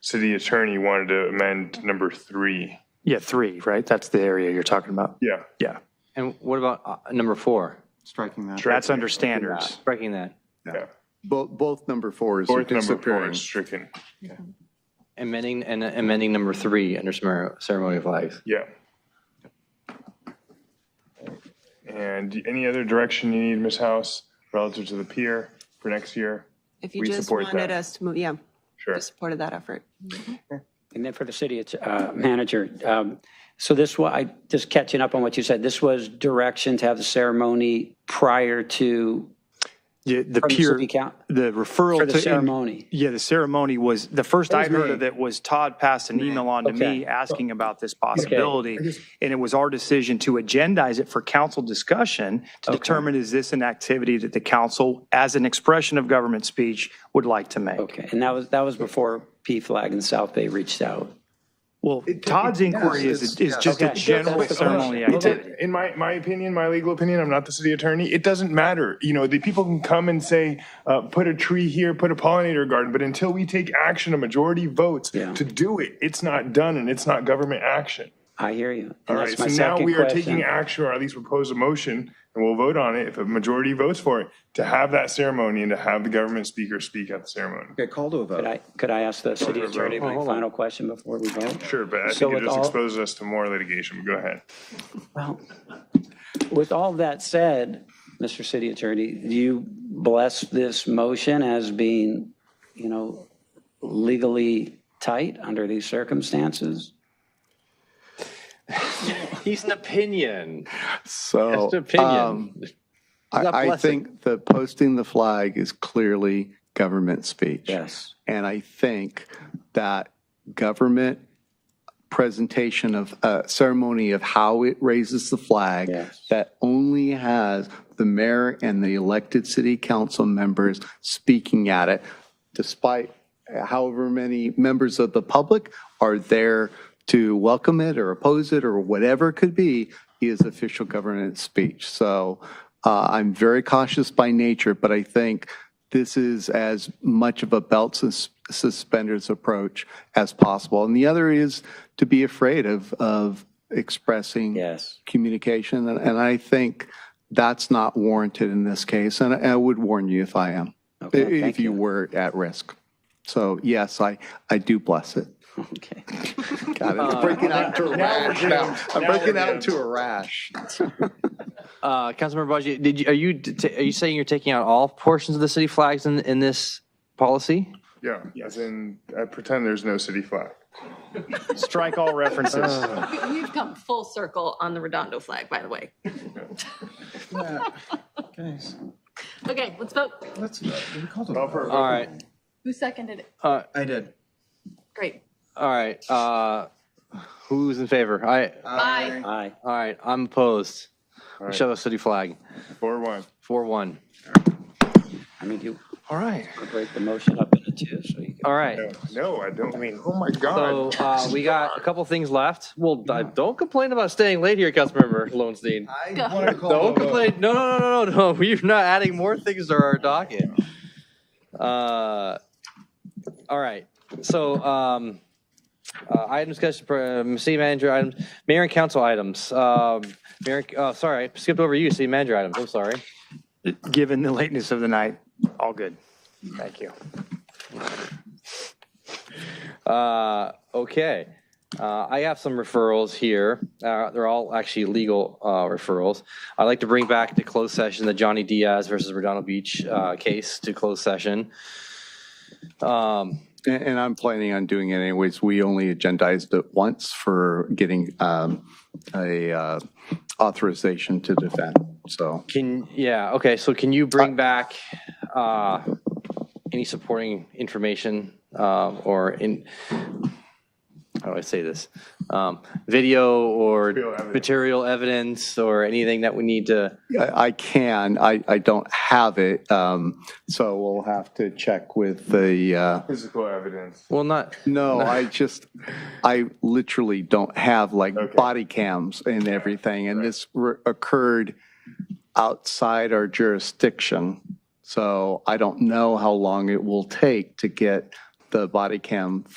city attorney wanted to amend number three. Yeah, three, right? That's the area you're talking about. Yeah. Yeah. And what about uh, number four, striking that. That's under standards. breaking that, Yeah. Both, both number fours are Fourth number four disappearing. is stricken. amending, and amending number three under cemer- ceremony of flags? Yeah. And any other direction you need, Ms. House, relative to the pier for next year? If you We just support that. wanted us to move, yeah, Sure. we supported that effort. And then for the city it's, uh, manager, um, so this, wa- I, just catching up on what you said, this was direction to have the ceremony prior to Yeah, the from the peer, city count- the referral for to the ceremony. Yeah, the ceremony was the first I was heard me. of it was Todd passed an email on to me Okay. asking about this possibility. And it was our decision to agendize it for council discussion to determine is this an activity that the council, as an expression of government speech, would like to make. Okay, and that was, that was before P Flag and South Bay reached out. Well, Todd's inquiry is, it's- is just a Okay. general That's the ceremony question. activity. In my, my opinion, my legal opinion, I'm not the city attorney, it doesn't matter. You know, the people can come and say, uh, put a tree here, put a pollinator garden, but until we take action, a majority votes Yeah. to do it, it's not done and it's not government action. I hear you. All right, so now we are taking action, or at least propose a motion, and we'll vote on it if a majority votes for it, to have that ceremony and to have the government speaker speak at the ceremony. Okay, call to a vote. Could I, could I ask the city attorney my final question before we vote? Sure, but I So think it with just all- exposes us to more litigation, but go ahead. Well, with all that said, Mr. City Attorney, do you bless this motion as being, you know, legally tight under these circumstances? He's an opinion, So, um, opinion. not I, I blessing. think the posting the flag is clearly government speech. Yes. And I think that government presentation of uh, ceremony of how it raises the flag Yes. that only has the mayor and the elected city council members speaking at it, despite however many members of the public are there to welcome it or oppose it or whatever it could be, is official government speech. So uh, I'm very cautious by nature, but I think this is as much of a belt sus- suspenders approach as possible. And the other is to be afraid of, of expressing Yes. communication. And, and I think that's not warranted in this case. And I, I would warn you if I am, Okay, if thank you were at risk. So yes, I, I do bless it. Okay. God, I'm breaking out into a rash now. I'm breaking out into a rash. Uh, Councilmember Budgie, did you, are you, t- are you saying you're taking out all portions of the city flags in, in this policy? Yeah, as in, I pretend there's no city flag. Strike all references. We've come full circle on the Redondo flag, by the way. Guys, Okay, let's vote. let's, we called a All vote. for- All right, Who seconded it? I did. Great. all right, uh, who's in favor? I, Aye. Aye. all right, I'm opposed. We right. show the city flag, Four one. four one. I mean, you All right, break the motion up into two, so you can. all right. No, I don't mean, oh my So God. uh, we got a couple things left. Well, I- don't complain about staying late here, Councilmember Lowenstein. I wanted to call. Don't to a vote. complain. No, no, no, no, no. We're not adding more things to our docket. Uh, all right. So um, uh, item discussion for um, city manager items, mayor and council items. Um, mayor, oh, sorry, I skipped over you, city manager items. I'm sorry. Given the lateness of the night, all good. Thank you. Uh, okay. Uh, I have some referrals here. Uh, they're all actually legal uh, referrals. I'd like to bring back to closed session the Johnny Diaz versus Redondo Beach uh, case to closed session. Um, And, and I'm planning on doing it anyways. We only agendized it once for getting um, a uh, authorization to defend. So Can, yeah, okay, so can you bring back uh any supporting information um, or in, how do I say this? Um Video or evidence. material evidence or anything that we need to, I, I can, I, I don't have it. Um, so we'll have to check with the, uh, Physical evidence. well, not, No, I just, I literally don't have like body cams and everything. And this re- occurred outside our jurisdiction. So I don't know how long it will take to get the body cam